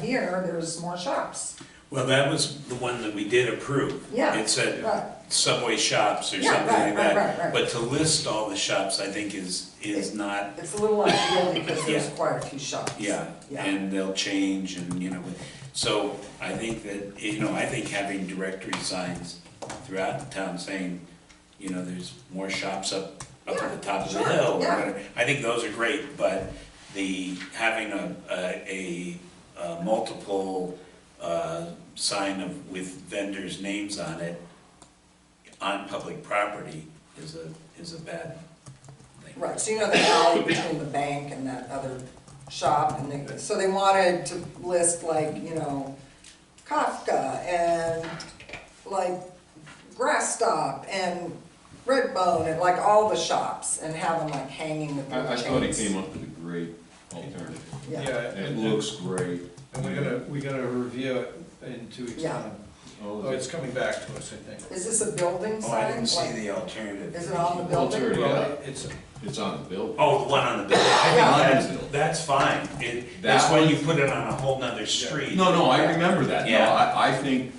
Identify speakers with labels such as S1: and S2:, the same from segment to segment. S1: here, there's more shops.
S2: Well, that was the one that we did approve.
S1: Yeah,
S2: It
S1: right.
S2: said Subway shops or
S1: Yeah,
S2: something like
S1: right, right, right, right.
S2: that. But to list all the shops, I think is, is not,
S1: It's a little unusual because there's
S2: Yeah.
S1: quite a few shops.
S2: yeah,
S1: Yeah,
S2: and they'll change and, you know. So I think that, you know, I think having directory signs throughout the town saying, you know, there's more shops up, up at the top of the
S1: Yeah, sure,
S2: hill. or
S1: yeah.
S2: whatever. I think those are great, but the, having a, a, a multiple, uh, sign of, with vendors' names on it on public property is a, is a bad thing.
S1: right, so you know the alley between the bank and that other shop, and they, so they wanted to list like, you know, Kafka and like Grass Stop and Redbone and like all the shops and have them like hanging with their
S3: I, I
S1: chains.
S3: thought he came up with a great alternative.
S1: Yeah,
S3: It
S4: and-
S3: looks great.
S4: And we're gonna, we're gonna review it in two weeks'
S1: Yeah.
S4: time.
S3: All
S4: Oh,
S3: of
S4: it's
S3: it.
S4: coming back to us, I think.
S1: is this a building
S2: Oh,
S1: sign?
S2: I didn't see
S1: Like-
S2: the alternative.
S1: Is it on the building?
S3: Alter- Yeah.
S4: Well, it's,
S3: It's on the bill.
S2: Oh, the one on the building, I think
S1: Yeah.
S2: that's, that's fine, it, that's
S3: That
S2: when
S3: one-
S2: you put it on a whole nother street.
S3: No, no, I remember that. No,
S2: Yeah.
S3: I, I think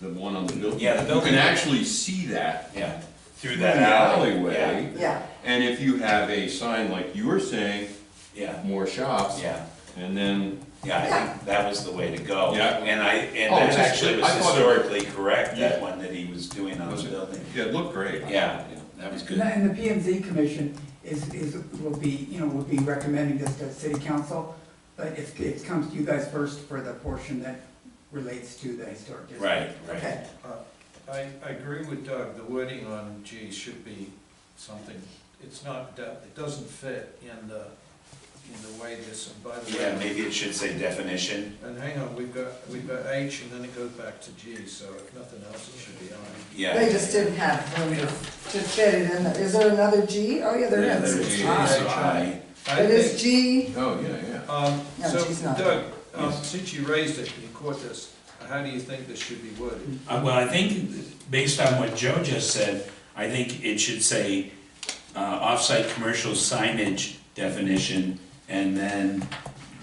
S3: the one on the building.
S2: Yeah, the building.
S3: You can actually see that
S2: Yeah, through
S3: through the
S2: that alley.
S3: alleyway.
S1: Yeah,
S3: And if you have a sign like you were saying,
S2: Yeah,
S3: more shops.
S2: yeah,
S3: And then,
S2: yeah, I think that was the way to go.
S3: Yeah.
S2: And I, and
S3: Oh,
S2: that
S3: just-
S2: actually was
S3: I thought-
S2: historically correct, that
S3: Yeah.
S2: one that he was doing on
S3: Was
S2: the
S3: it-
S2: building.
S3: yeah, it looked great.
S2: Yeah, that was
S5: And
S2: good.
S5: that- and the PMZ commission is, is, will be, you know, will be recommending this to city council, but it, it comes to you guys first for the portion that relates to the historic district.
S2: Right, right.
S1: okay,
S4: I, I agree with Doug, the wording on G should be something, it's not, de- it doesn't fit in the, in the way this, and by the
S2: Yeah,
S4: way.
S2: maybe it should say definition.
S4: And hang on, we've got, we've got H and then it goes back to G, so if nothing else, it should be I.
S2: Yeah.
S1: they just didn't have room to, to fit it in, there. is there another G? Oh, yeah, there
S2: There's
S1: is.
S2: G,
S1: It's
S2: there's
S1: I.
S2: I.
S4: I
S1: It
S4: think-
S1: is G,
S3: Oh, yeah, yeah.
S4: Um,
S1: No,
S4: so
S1: she's not.
S4: Doug, um,
S3: Yes.
S4: since you raised it, you caught this, how do you think this should be worded?
S2: Uh, well, I think, based on what Joe just said, I think it should say, uh, off-site commercial signage definition, and then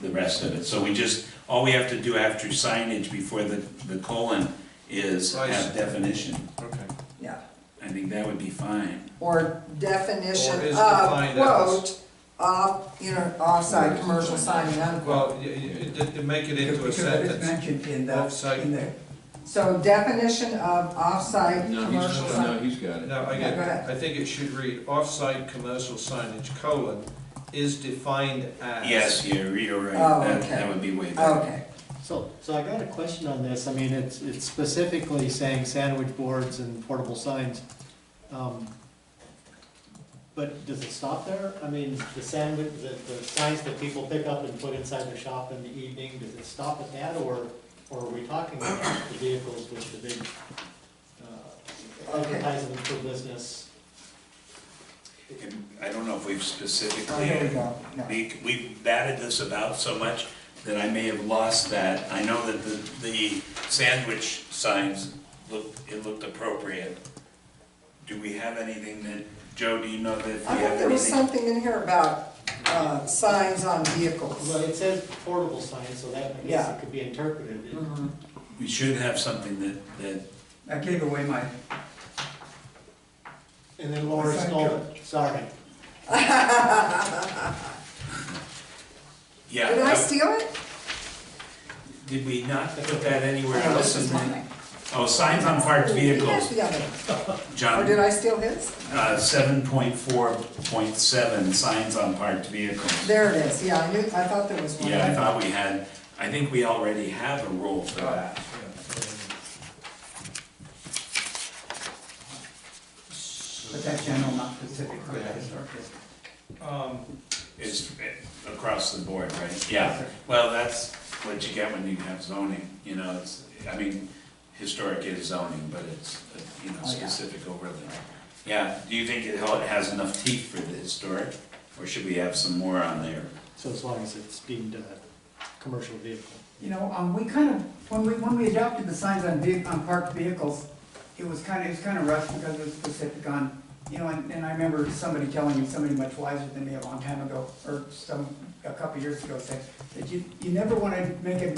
S2: the rest of it. So we just, all we have to do after signage before the, the colon is have
S4: Right.
S2: definition.
S4: Okay.
S1: yeah,
S2: I think that would be fine.
S1: or definition
S4: Or is
S1: of,
S4: defined as-
S1: quote, off, you know, offside commercial signing, unquote.
S4: Well, y- y- y- to make it
S5: Because
S4: into a
S5: because it is
S4: sentence,
S5: mentioned in the,
S4: Offsite.
S5: in the,
S1: So definition of offsite
S3: No,
S1: commercial
S3: he's, no,
S1: sign.
S3: he's got it.
S4: no, I
S1: Yeah,
S4: get,
S1: go ahead.
S4: I think it should read, off-site commercial signage, colon, is defined as.
S2: Yes, you're, you're right,
S1: Oh,
S2: that,
S1: okay. Oh,
S2: that would be way better.
S1: Okay,
S6: So, so I got a question on this, I mean, it's, it's specifically saying sandwich boards and portable signs. Um, But does it stop there? I mean, the sandwich, the, the signs that people pick up and put inside their shop in the evening, does it stop at that, or, or are we talking about the vehicles with the big, uh,
S1: Okay.
S6: advertisement for business?
S2: I don't know if we've
S1: oh,
S2: specifically
S1: here we go, no.
S2: We- We've batted this about so much that I may have lost that. I know that the, the sandwich signs looked, it looked appropriate. Do we have anything that, Joe, do you know that if we
S1: I
S2: have
S1: thought there was
S2: anything?
S1: something in here about, uh, signs on
S6: Well,
S1: vehicles.
S6: it says portable signs, so that, I guess
S1: Yeah.
S6: it could be interpreted.
S1: Mhm.
S2: We should have something that, that,
S5: I gave away my,
S6: And then Laura
S5: Sign
S6: stole it, sorry.
S2: yeah.
S1: Did I
S2: uh,
S1: steal it?
S2: Did we not put that anywhere
S1: Oh,
S2: else?
S1: this is
S2: in there?
S1: mine.
S2: Oh, signs on parked
S1: He has
S2: vehicles,
S1: the other one. Or did
S2: John,
S1: I steal his?
S2: uh, seven point four point seven, signs on parked vehicles.
S1: There it is, yeah, I knew, I thought there was one.
S2: Yeah, I thought we had, I think we already have a rule for that.
S5: but that general, not specific for the historic district.
S4: Um,
S2: is across the board, right? Yeah, well, that's what you get when you have zoning, you know, it's, I mean, historic is zoning, but it's, you know,
S1: Oh, yeah.
S2: specific overlay. Yeah, do you think it hel- has enough teeth for the historic, or should we have some more on there?
S6: So as long as it's deemed a commercial vehicle.
S5: You know, um, we kind of, when we, when we adopted the signs on vehi, on parked vehicles, it was kind of, it was kind of rough because it was specific on, you know, and, and I remember somebody telling me, somebody much wiser than me a long time ago, or some, a couple years ago, said, that you, you never want to make a